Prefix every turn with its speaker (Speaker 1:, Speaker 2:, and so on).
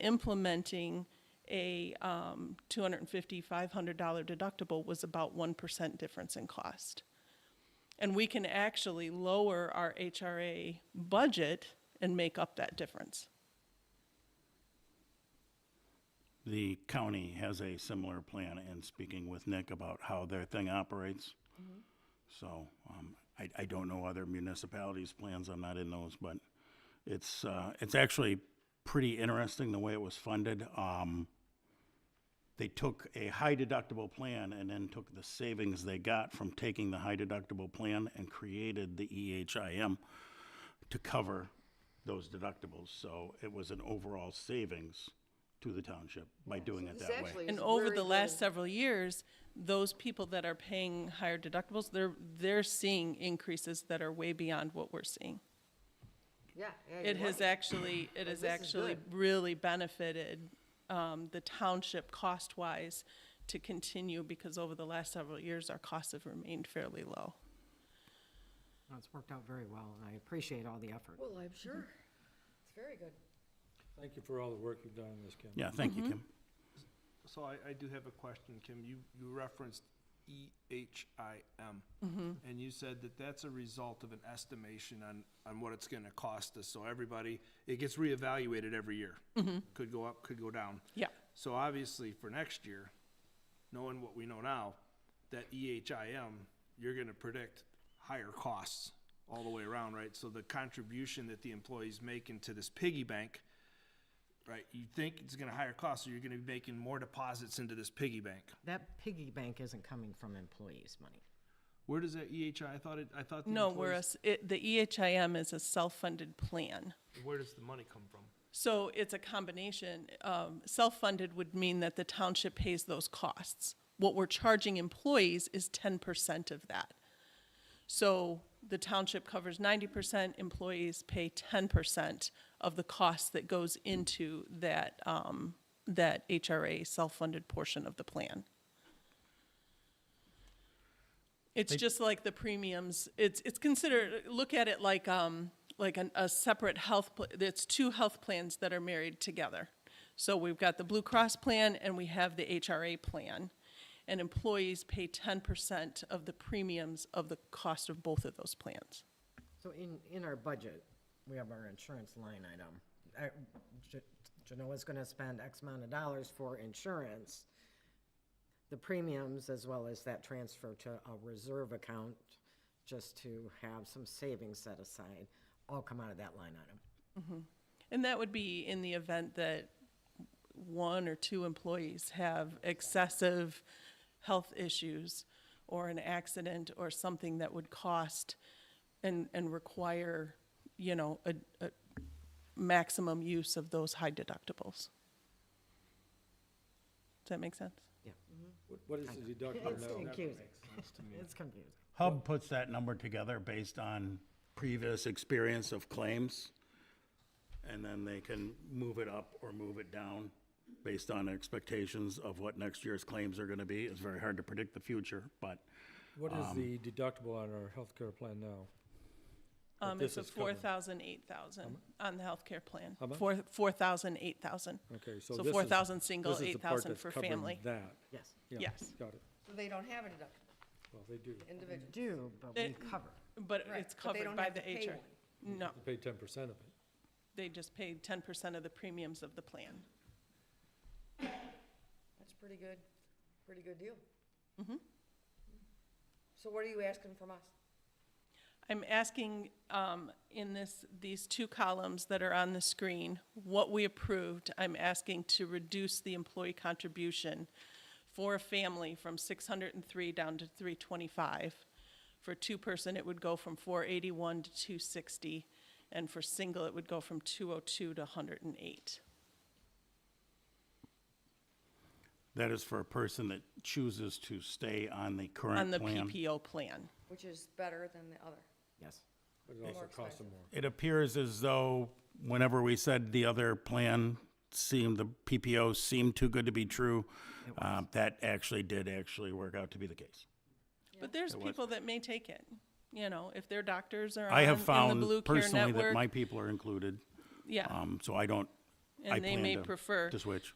Speaker 1: implementing a um, $250, $500 deductible was about 1% difference in cost. And we can actually lower our HRA budget and make up that difference.
Speaker 2: The county has a similar plan and speaking with Nick about how their thing operates. So, um, I, I don't know other municipalities' plans, I'm not in those, but it's, uh, it's actually pretty interesting the way it was funded. Um, they took a high deductible plan and then took the savings they got from taking the high deductible plan and created the E EHIM to cover those deductibles. So it was an overall savings to the township by doing it
Speaker 3: This
Speaker 2: that way.
Speaker 3: actually
Speaker 1: And
Speaker 3: is
Speaker 1: over
Speaker 3: very
Speaker 1: the last
Speaker 3: good.
Speaker 1: several years, those people that are paying higher deductibles, they're, they're seeing increases that are way beyond what we're seeing.
Speaker 3: Yeah. yeah,
Speaker 1: It
Speaker 3: you're
Speaker 1: has
Speaker 3: right.
Speaker 1: actually, it has
Speaker 3: this is
Speaker 1: actually
Speaker 3: good.
Speaker 1: really benefited um, the township cost-wise to continue because over the last several years, our costs have remained fairly low.
Speaker 4: No, It's worked out very well, and I appreciate all the effort.
Speaker 3: Well, I'm sure. It's very good.
Speaker 5: Thank you for all the work you've done on this, Kim.
Speaker 2: Yeah, thank you, Kim.
Speaker 6: So I, I do have a question, Kim. You, you referenced E EHIM. And you said that that's a result of an estimation on, on what it's gonna cost us. So everybody, it gets reevaluated every year. Could go up, could go down.
Speaker 1: Yeah.
Speaker 6: So obviously, for next year, knowing what we know now, that E EHIM, you're gonna predict higher costs all the way around, right? So the contribution that the employee's making to this piggy bank, right, you think it's gonna higher cost, so you're gonna be making more deposits into this piggy bank.
Speaker 4: That piggy bank isn't coming from employees' money.
Speaker 6: Where does that EHI, I thought it, I thought the
Speaker 1: No,
Speaker 6: employees,
Speaker 1: whereas, it- the E EHIM is a self-funded plan.
Speaker 6: where does the money come from?
Speaker 1: So it's a combination. Um, Self-funded would mean that the township pays those costs. What we're charging employees is ten percent of that. So the township covers ninety percent, employees pay ten percent of the cost that goes into that, um, that HRA self-funded portion of the plan. It's just like the premiums, it's, it's considered, look at it like, um, like an, a separate health, pl- it's two health plans that are married together. So we've got the Blue Cross plan and we have the HRA plan. And employees pay ten percent of the premiums of the cost of both of those plans.
Speaker 4: So in, in our budget, we have our insurance line item. Uh, Ge- Genoa's gonna spend X amount of dollars for insurance, the premiums, as well as that transfer to a reserve account, just to have some savings set aside, all come out of that line item.
Speaker 1: And that would be in the event that one or two employees have excessive health issues or an accident or something that would cost and, and require, you know, a, a maximum use of those high deductibles. Does that make sense?
Speaker 5: What- What is the deductible
Speaker 4: It's
Speaker 5: now?
Speaker 4: confusing. It's confusing.
Speaker 2: Hub puts that number together based on previous experience of claims. And then they can move it up or move it down based on expectations of what next year's claims are gonna be. It's very hard to predict the future, but
Speaker 5: What is the deductible on our healthcare plan now? What
Speaker 1: Um,
Speaker 5: this
Speaker 1: it's a
Speaker 5: is covering?
Speaker 1: four thousand, eight thousand on the healthcare plan.
Speaker 5: How much?
Speaker 1: Four, four thousand, eight thousand.
Speaker 5: Okay, so
Speaker 1: So
Speaker 5: this is-
Speaker 1: four thousand single,
Speaker 5: this is the
Speaker 1: eight
Speaker 5: part
Speaker 1: thousand
Speaker 5: that's
Speaker 1: for
Speaker 5: covering
Speaker 1: family.
Speaker 5: That.
Speaker 4: Yes,
Speaker 5: Yeah,
Speaker 1: Yes.
Speaker 5: Got it.
Speaker 3: So they don't have a deductible,
Speaker 5: Well, they do.
Speaker 3: individual.
Speaker 4: do, but we
Speaker 1: They-
Speaker 4: cover.
Speaker 1: But
Speaker 3: Right,
Speaker 1: it's
Speaker 3: but they
Speaker 1: covered
Speaker 3: don't
Speaker 1: by
Speaker 3: have
Speaker 1: the
Speaker 3: to pay
Speaker 1: HR. No,
Speaker 5: They pay ten percent of it.
Speaker 1: they just paid ten percent of the premiums of the plan.
Speaker 3: That's pretty good, pretty good deal. Mm-hmm. So what are you asking from us?
Speaker 1: I'm asking, um, in this, these two columns that are on the screen, what we approved, I'm asking to reduce the employee contribution for a family from six hundred and three down to three twenty-five. For two-person, it would go from four eighty-one to two sixty, and for single, it would go from two oh two to hundred and eight.
Speaker 2: that is for a person that chooses to stay on the
Speaker 1: On
Speaker 2: current
Speaker 1: the
Speaker 2: plan.
Speaker 1: PPO plan.
Speaker 3: Which is better than the other.
Speaker 4: Yes.
Speaker 5: But it also costs them more.
Speaker 2: It appears as though whenever we said the other plan seemed, the PPO seemed too good to be true, uh, that actually did actually work out to be the case.
Speaker 1: But there's people that may take it, you know, if their doctors are on,
Speaker 2: I have
Speaker 1: in the Blue
Speaker 2: found
Speaker 1: Care
Speaker 2: personally that
Speaker 1: Network,
Speaker 2: my people are included.
Speaker 1: Yeah.
Speaker 2: Um, so I don't I
Speaker 1: And they may
Speaker 2: plan to-
Speaker 1: prefer.
Speaker 2: To switch.